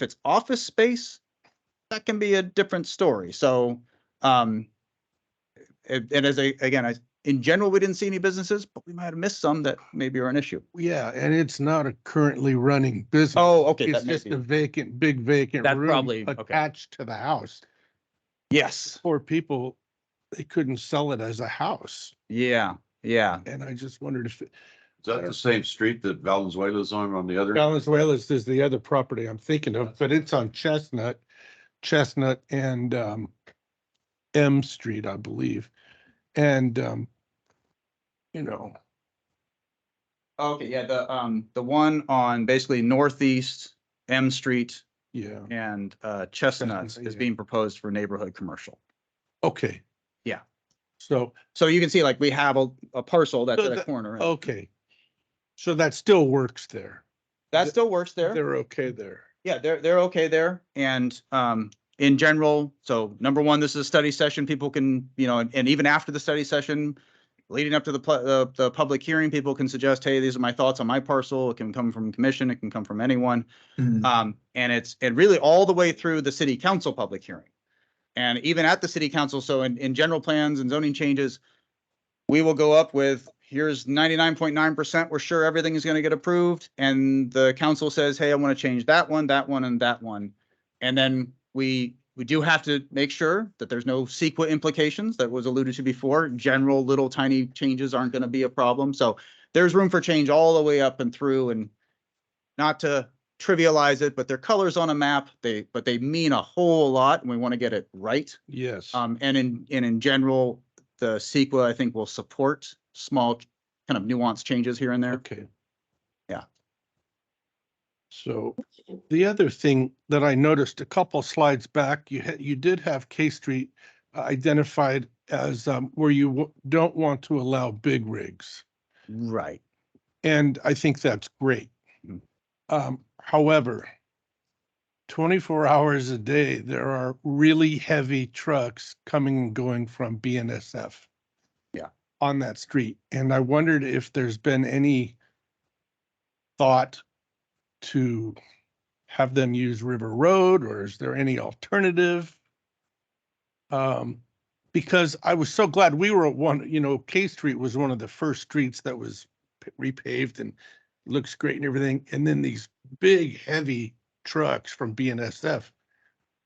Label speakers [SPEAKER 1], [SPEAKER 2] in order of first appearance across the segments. [SPEAKER 1] If it's office space, that can be a different story. So, um, and and as I, again, I, in general, we didn't see any businesses, but we might have missed some that maybe are an issue.
[SPEAKER 2] Yeah, and it's not a currently running business.
[SPEAKER 1] Oh, okay,
[SPEAKER 2] It's
[SPEAKER 1] that may
[SPEAKER 2] just
[SPEAKER 1] be,
[SPEAKER 2] a vacant, big vacant
[SPEAKER 1] That's
[SPEAKER 2] room
[SPEAKER 1] probably- okay.
[SPEAKER 2] attached to the house.
[SPEAKER 1] yes,
[SPEAKER 2] Poor people, they couldn't sell it as a house.
[SPEAKER 1] yeah, yeah.
[SPEAKER 2] And I just wondered if
[SPEAKER 3] Is that the same street that Valenzuela's on, on the other?
[SPEAKER 2] Valenzuela's is the other property I'm thinking of, but it's on Chestnut, Chestnut and um M Street, I believe. And um, you know,
[SPEAKER 1] Okay, yeah, the, um, the one on basically northeast M Street
[SPEAKER 2] yeah,
[SPEAKER 1] and, uh, Chestnut
[SPEAKER 2] Chestnut,
[SPEAKER 1] is
[SPEAKER 2] yeah.
[SPEAKER 1] being proposed for neighborhood commercial.
[SPEAKER 2] okay.
[SPEAKER 1] Yeah.
[SPEAKER 2] So,
[SPEAKER 1] So you can see like we have a, a parcel that's
[SPEAKER 2] So
[SPEAKER 1] at
[SPEAKER 2] oh,
[SPEAKER 1] a
[SPEAKER 2] that-
[SPEAKER 1] corner. and
[SPEAKER 2] okay. So that still works there.
[SPEAKER 1] That still works there.
[SPEAKER 2] They're okay there.
[SPEAKER 1] Yeah, they're, they're okay there. And, um, in general, so number one, this is a study session. People can, you know, and- and even after the study session, leading up to the, pl- the, the public hearing, people can suggest, hey, these are my thoughts on my parcel. It can come from commission, it can come from anyone.
[SPEAKER 2] Mm-hmm.
[SPEAKER 1] Um, and it's, and really all the way through the city council public hearing. And even at the city council, so in, in general plans and zoning changes, we will go up with, here's ninety-nine point nine percent, we're sure everything is gonna get approved. And the council says, hey, I wanna change that one, that one, and that one. And then we, we do have to make sure that there's no CEQA implications that was alluded to before. General little tiny changes aren't gonna be a problem, so there's room for change all the way up and through and not to trivialize it, but they're colors on a map, they, but they mean a whole lot and we wanna get it right.
[SPEAKER 2] Yes.
[SPEAKER 1] Um, and in, and in general, the CEQA, I think, will support small kind of nuanced changes here and there.
[SPEAKER 2] Okay.
[SPEAKER 1] Yeah.
[SPEAKER 2] So the other thing that I noticed a couple slides back, you had, you did have K Street identified as um, where you w- don't want to allow big rigs.
[SPEAKER 1] Right.
[SPEAKER 2] And I think that's great.
[SPEAKER 1] Mm.
[SPEAKER 2] Um, however, twenty-four hours a day, there are really heavy trucks coming and going from BNSF.
[SPEAKER 1] Yeah.
[SPEAKER 2] On that street. And I wondered if there's been any thought to have them use River Road or is there any alternative? Um, because I was so glad we were at one, you know, K Street was one of the first streets that was p- repaved and looks great and everything. And then these big, heavy trucks from BNSF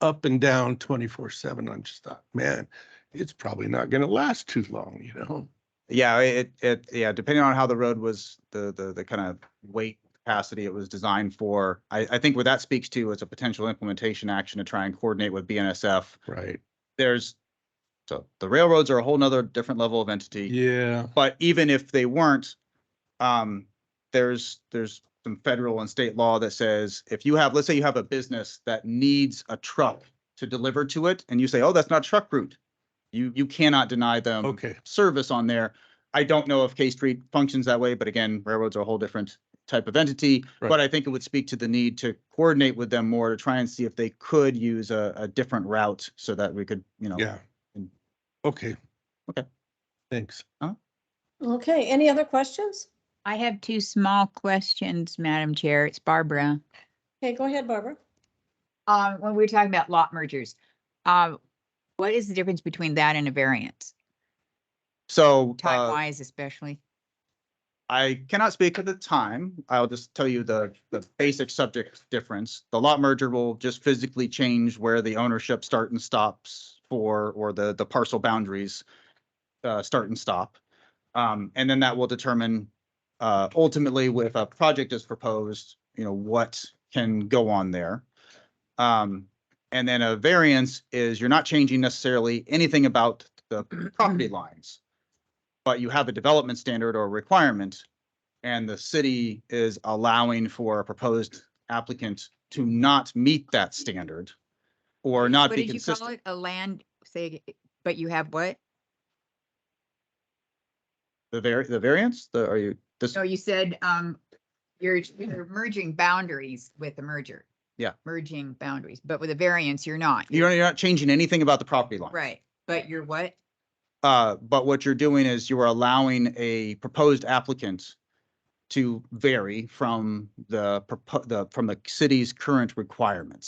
[SPEAKER 2] up and down twenty-four seven. I'm just thought, man, it's probably not gonna last too long, you know?
[SPEAKER 1] Yeah, it, it, yeah, depending on how the road was, the, the, the kind of weight capacity it was designed for. I, I think what that speaks to is a potential implementation action to try and coordinate with BNSF.
[SPEAKER 2] Right.
[SPEAKER 1] There's, so the railroads are a whole nother different level of entity.
[SPEAKER 2] Yeah.
[SPEAKER 1] But even if they weren't, um, there's, there's some federal and state law that says if you have, let's say you have a business that needs a truck to deliver to it and you say, oh, that's not truck route. You, you cannot deny them
[SPEAKER 2] Okay.
[SPEAKER 1] service on there. I don't know if K Street functions that way, but again, railroads are a whole different type of entity. But
[SPEAKER 2] Right.
[SPEAKER 1] I think it would speak to the need to coordinate with them more to try and see if they could use a, a different route so that we could, you know.
[SPEAKER 2] Yeah.
[SPEAKER 1] And-
[SPEAKER 2] Okay.
[SPEAKER 1] Okay.
[SPEAKER 2] Thanks.
[SPEAKER 4] Okay, any other questions?
[SPEAKER 5] I have two small questions, Madam Chair. It's Barbara.
[SPEAKER 4] Okay, go ahead, Barbara.
[SPEAKER 5] Um, when we were talking about lot mergers, um, what is the difference between that and a variance?
[SPEAKER 1] So.
[SPEAKER 5] Time
[SPEAKER 1] uh,
[SPEAKER 5] wise especially?
[SPEAKER 1] I cannot speak at the time. I'll just tell you the, the basic subject difference. The lot merger will just physically change where the ownership start and stops for, or the, the parcel boundaries uh, start and stop. Um, and then that will determine uh, ultimately if a project is proposed, you know, what can go on there. Um, and then a variance is you're not changing necessarily anything about the property lines but you have a development standard or requirement, and the city is allowing for a proposed applicant to not meet that standard or not
[SPEAKER 5] What
[SPEAKER 1] be
[SPEAKER 5] did you call
[SPEAKER 1] consistent.
[SPEAKER 5] it? A land, say, ag- but you have what?
[SPEAKER 1] The vari, the variance, the, are you, this,
[SPEAKER 5] No, you said, um, you're, you're merging boundaries with the merger.
[SPEAKER 1] Yeah.
[SPEAKER 5] Merging boundaries, but with a variance, you're not.
[SPEAKER 1] you're, you're not changing anything about the property line.
[SPEAKER 5] Right, but you're what?
[SPEAKER 1] Uh, but what you're doing is you are allowing a proposed applicant to vary from the, propo- the, from the city's current requirements.